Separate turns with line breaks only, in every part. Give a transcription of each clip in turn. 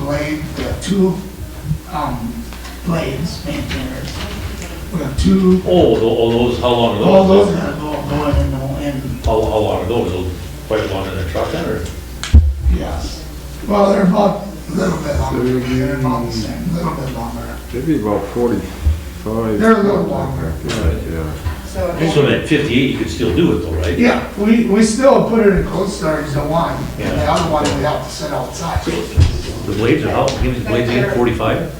blade, we have two, um, blades, maintainers. We have two,
Oh, tho- oh, those, how long are those?
all those gotta go, go in and go in,
How, how long are those? Those Quite long in the truck then, or?
yes. Well, they're about a little bit longer, they're about the same, a little bit longer.
Maybe about forty-five.
They're a little longer.
Yeah, yeah.
So it
So
won't-
at fifty-eight, you could still do it though, right?
Yeah, we, we still put it in cold storage, the one, and the
Yeah.
other one we have to sit outside.
The blades are how, give me the blades again, forty-five?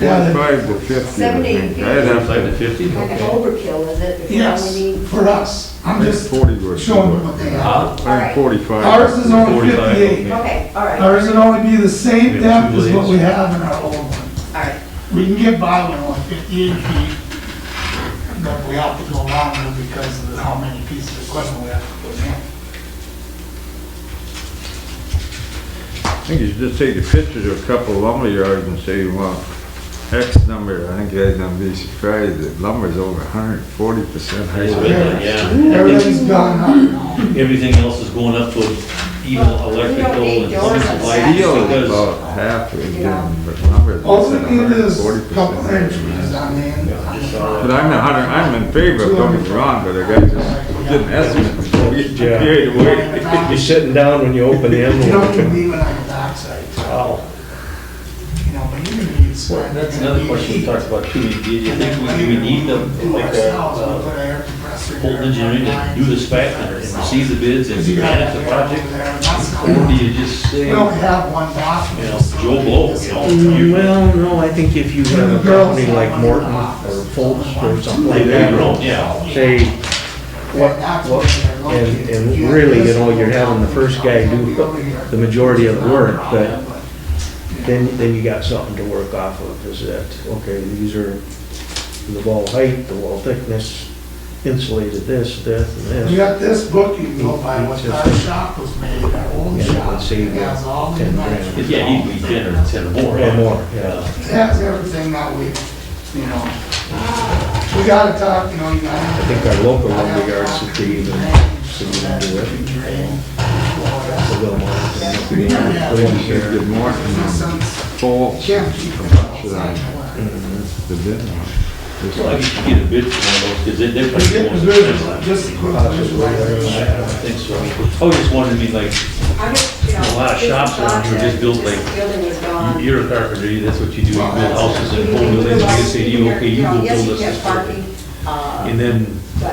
Yeah,
Forty-five to fifty, I
Seventy,
think. I'd have
Forty-five to
to,
fifty?
like an overkill, is it? If you
Yes,
only need-
for us, I'm
Like
just
40 worth.
showing them what they have.
Huh?
All right.
I'm forty-five.
Ours is only
45,
fifty-eight.
okay.
Okay, all right, all
Ours would only be the same
We have
depth
two
as what
blades.
we have in our old one.
right.
We can get by with one fifty-eight feet, but we have to go longer because of how many pieces of equipment we have to put in.
I think you should just take the pictures of a couple lumber yards and say you want X number. I think you're gonna be surprised that lumber's over hundred and forty percent
Nice,
higher.
but, Yeah,
Everything's gone up now.
everything else is going up to even
Well, we don't
electrical
need
and
doors on
supplies.
Saturday.
Steel is
Because
about half
Yeah.
again, but lumber's
All we
at
need
hundred and
is
forty
a couple inches
percent.
on the end. on the front.
But I'm a hundred, I'm in favor of going wrong, but I gotta just get an estimate before we get too carried away.
You're sitting down when you open the
You don't
envelope.
even leave it on your backside,
Wow.
you know, but you're gonna need square.
Oh. That's another question we talked about too, do you
And then
think
later
we- we need the,
do
like, uh,
ourselves, we'll
uh,
put air compressor in
Fulton
there,
Engineering to do the spec and and receive the bids and
Because you gotta
manage
have
the
air over
project?
there, and that's
Or do
cool.
you just say,
We
you
only
know,
have one bathroom.
Joe Blow, you know? you-
Mm, Well, no, I think if you
And the
have a
girls
company like
have one in
Morton
the
or
office.
Fultz or something
They
like
do their own,
that,
yeah.
say, what, what, and, and really, you know, you're having the first guy do the majority of the work, but then, then you got something to work off of, is that, okay, these are the wall height, the wall thickness, insulated this, that, and
You
this.
got this book, you can go by what our shop was made, our old
Yeah,
shop,
let's see,
it has all the
ten grand.
dimensions.
Yeah, you need to be ten or ten or more. Uh,
Or more, yeah.
It has everything that we, you know, we gotta talk, you know, you gotta.
I think our local lumberyards should be even, should even do it. The Wilmots and the Williams here.
Good morning. Full.
Can't keep it outside the water.
The bid.
Well, you should get a bid for one of those, because they're
We
pretty
get the visual,
expensive.
just a quick visualization.
I don't think so. I was Oh, just wondering, I mean, like,
I just, you know,
A lot of
this is
shops around here just built
project,
like-
this Building is gone.
you're a carpenter, you- that's what you do, you build houses and
You
home
can
buildings, and they
utilize
say to you,
your-
okay, you
know,
go
yes,
build us
get
this. building.
parking, uh,
And then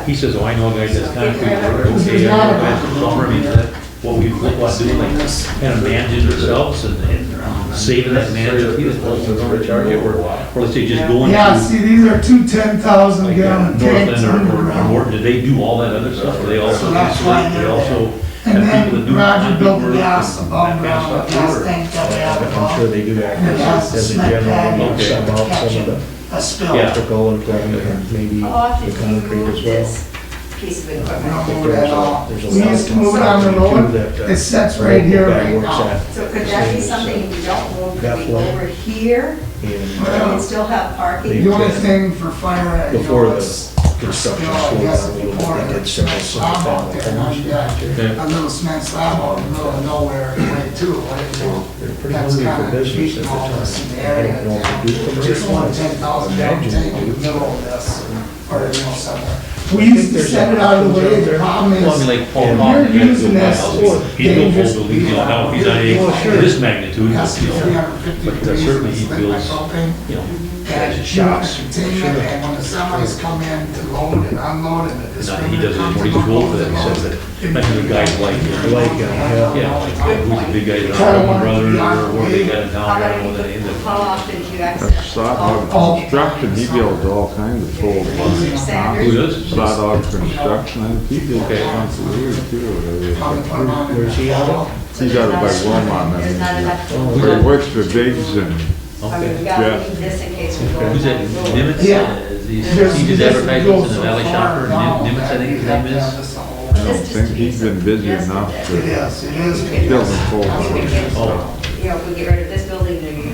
he says, oh, I know a guy that's concrete, work,
This is
okay,
not
I'm
a-
a plumber, I mean, that, what we, what we do, like, kind of managing ourselves and, and saving that management, he just wants us to charge it, or, or let's say just going
Yeah,
to
see, these are two ten thousand
like uh,
gallon tanks
Northland or- or, or
underground.
Morton, do they do all that other stuff, or they also,
So
do
that's why
street, they
they're
also
And
have people that
then
do.
Roger built the uh,
concrete work
gas
and
above
that kind of
ground, the
stuff,
gas
or-
tank that we have
I'm sure
above.
they do act
And it has
as
to
as a
cement that
general,
in
rule,
Okay.
sub out some of
catching
the
a spill.
Yeah.
electrical and plumbing and maybe
How often
the
do you
concrete
move
as well.
this piece of
We don't
equipment?
move it at all.
There's a
We
lot
used to
of
move it on the
concrete,
road,
too, that, uh,
it sits right here,
that
right
works
now.
at
So could that be
the same, uh,
something you don't move, could
That
be
way.
over here,
And
and you still have parking?
The only thing for fire, you
Before
know,
the
it's,
construction
you know, I
slowed
guess
down a little bit,
before
they did
it's
several
slab out there, now
single-family
you got a
Yeah.
little cement slab out in the middle of nowhere, way too, like, you know.
they're pretty
That's
hungry
kind
for
of
business
cheating
at the
all
time.
this in the
They
area.
don't know
town.
what to do for
Just one
business.
ten thousand gallon
Imagine
tank
what
in the
you-
middle of this, or, you know, somewhere. We used to set it out of the way, the problem is.
Well, I mean, like Paul
And
Hoffman,
you're
he built
using
my
this for
house, he built
dangerous-
whole buildings, you know, now he's not
Well, sure.
any, this magnitude,
Has to
you
be three
know,
hundred fifty
But, uh,
degrees,
certainly
it's
he
lit like
feels-
propane.
you know,
And you want to contain it, and when the semis come in to load and unload and the
Now,
distributor.
he doesn't,
comes
when he's
and
old,
loads
that
and
he
loads.
says that, imagine the guys like, him.
Like him, yeah.
yeah, who's the big guy, the
Kinda
brother,
wanted-
or where they got it
How
down, I
about
don't know,
you-
where they ended
How often do you
That's
access?
sod hog
All-
construction, he builds all kinds of full.
Who
Sanders?
does?
Sod hog construction, I think he did
Okay.
once a year too.
Come and
whatever.
put them on.
Where's he at?
He's out by Wilmot, I
There's not
mean,
enough.
But he works for Biggs and
I mean, we
Okay.
gotta
Yeah.
leave this in case we go.
Who's that,
down the road.
Nimitz?
Yeah.
Uh, He
There's-
he did
this goes
advertisements in
so
the Valley
far
Shopper,
now
Nim- Nimitz,
that
I think
you
his
have
name
to have
is.
this all-
I don't think he's been busy enough
It
to
is, it is.
build a full.
You could
house.
get,
Oh.
you know, we get rid of this building, then you could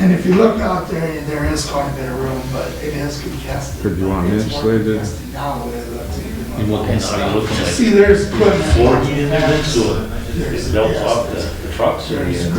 And if you look out there, there is quite a bit of room, but it is congested.
Could you want it
It's more
insulated?
congested Now, the way it looks, even
And what
though-
kind of, are you looking like
See, there's equipment.
floor heat in there, then, so it melts off the the trucks, or?
There's
you-